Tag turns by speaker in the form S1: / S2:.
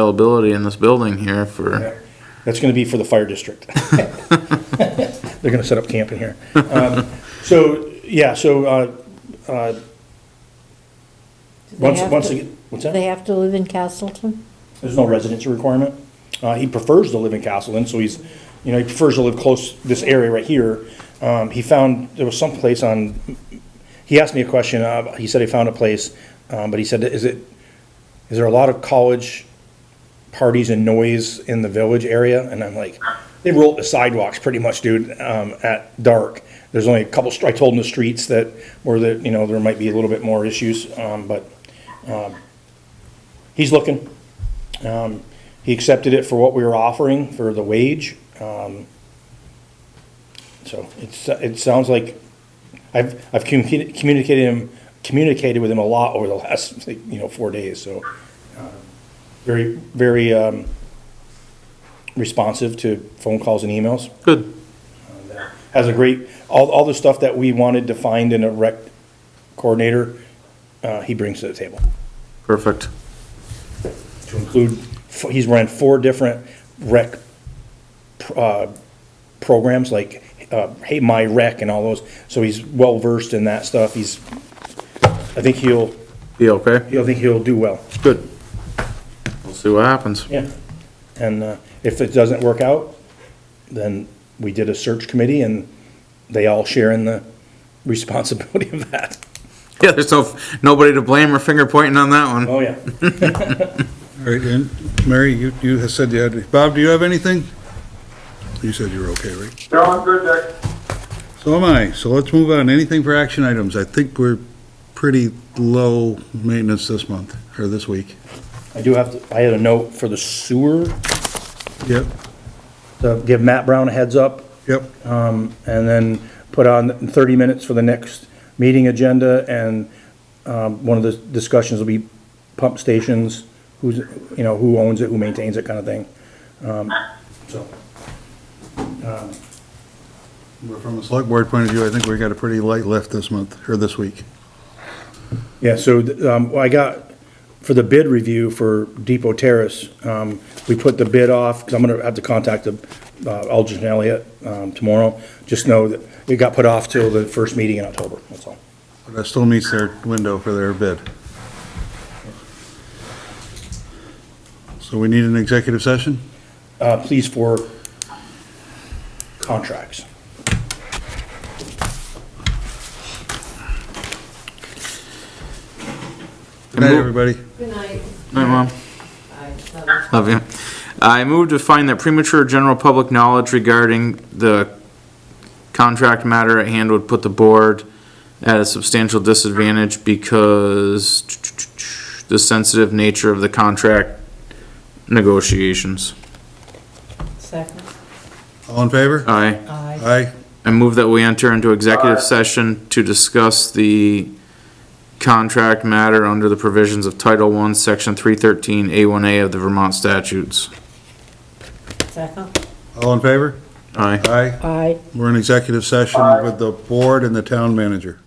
S1: availability in this building here for,
S2: That's gonna be for the fire district. They're gonna set up camp in here. Um, So, yeah, so, uh,
S3: Do they
S2: once,
S3: have
S2: once
S3: to-
S2: again, what's
S3: do They
S2: that?
S3: have to live in Castleton?
S2: There's no residency requirement. Uh, he prefers to live in Castleton, so he's, you know, he prefers to live close, this area right here. Um, he found, there was some place on, he asked me a question, uh, he said he found a place, um, but he said, is it, is there a lot of college parties and noise in the village area? And I'm like, they roll up the sidewalks pretty much, dude, um, at dark. There's only a couple, str- I told him the streets that, where the, you know, there might be a little bit more issues, um, but, um, he's looking. Um, he accepted it for what we were offering for the wage. Um, so it's, it sounds like I've, I've communi- communicated him, communicated with him a lot over the last, like, you know, four days, so. uh, Very, very, um, responsive to phone calls and emails.
S1: good.
S2: Has a great, all, all the stuff that we wanted to find in a rec coordinator, uh, he brings to the table
S1: Perfect.
S2: to include, f- he's run four different rec pr- uh, programs, like, uh, Hey My Rec and all those, so he's well-versed in that stuff, he's, I think he'll,
S1: Be okay?
S2: he'll, I think he'll do well,
S1: Good. We'll see what happens.
S2: yeah. And uh, if it doesn't work out, then we did a search committee, and they all share in the responsibility of that.
S1: Yeah, there's no, nobody to blame or finger pointing on that one.
S2: Oh, yeah.
S4: All right, and Mary, you, you had said you had, Bob, do you have anything? You said you were okay, right?
S5: No, I'm good, Dick.
S4: So am I, so let's move on, anything for action items? I think we're pretty low maintenance this month, or this week.
S2: I do have, to. I had a note for the sewer,
S4: Yep,
S2: to give Matt Brown a heads up,
S4: yep,
S2: um, and then put on 30 minutes for the next meeting agenda, and um, one of the discussions will be pump stations, who's, you know, who owns it, who maintains it, kind of thing. Um, So,
S4: but from a select board point of view, I think we got a pretty light lift this month, or this week.
S2: yeah, so um, I got, for the bid review for Depot Terrace, um, we put the bid off, because I'm going to have to contact the uh, Aldridge and Elliott um, tomorrow. Just know that it got put off till the first meeting in October, that's all.
S4: But that still meets their window for their bid. So we need an executive session?
S2: Uh, Please for contracts.
S4: Good night, everybody.
S6: Good night.
S1: Hi, Mom.
S6: Bye. Love
S1: Love you. I move to find that premature general public knowledge regarding the contract matter at hand would put the board at a substantial disadvantage because the sensitive nature of the contract negotiations.
S6: you. Second.
S4: All in favor?
S1: Aye.
S6: Aye.
S4: Aye.
S1: I move that we enter into executive session to discuss the contract matter under the provisions of Title I, Section 313A1A of the Vermont statutes.
S6: Second.
S4: All in favor?
S1: Aye.
S4: Aye.
S3: Aye.
S4: We're in executive session with the board and the town manager.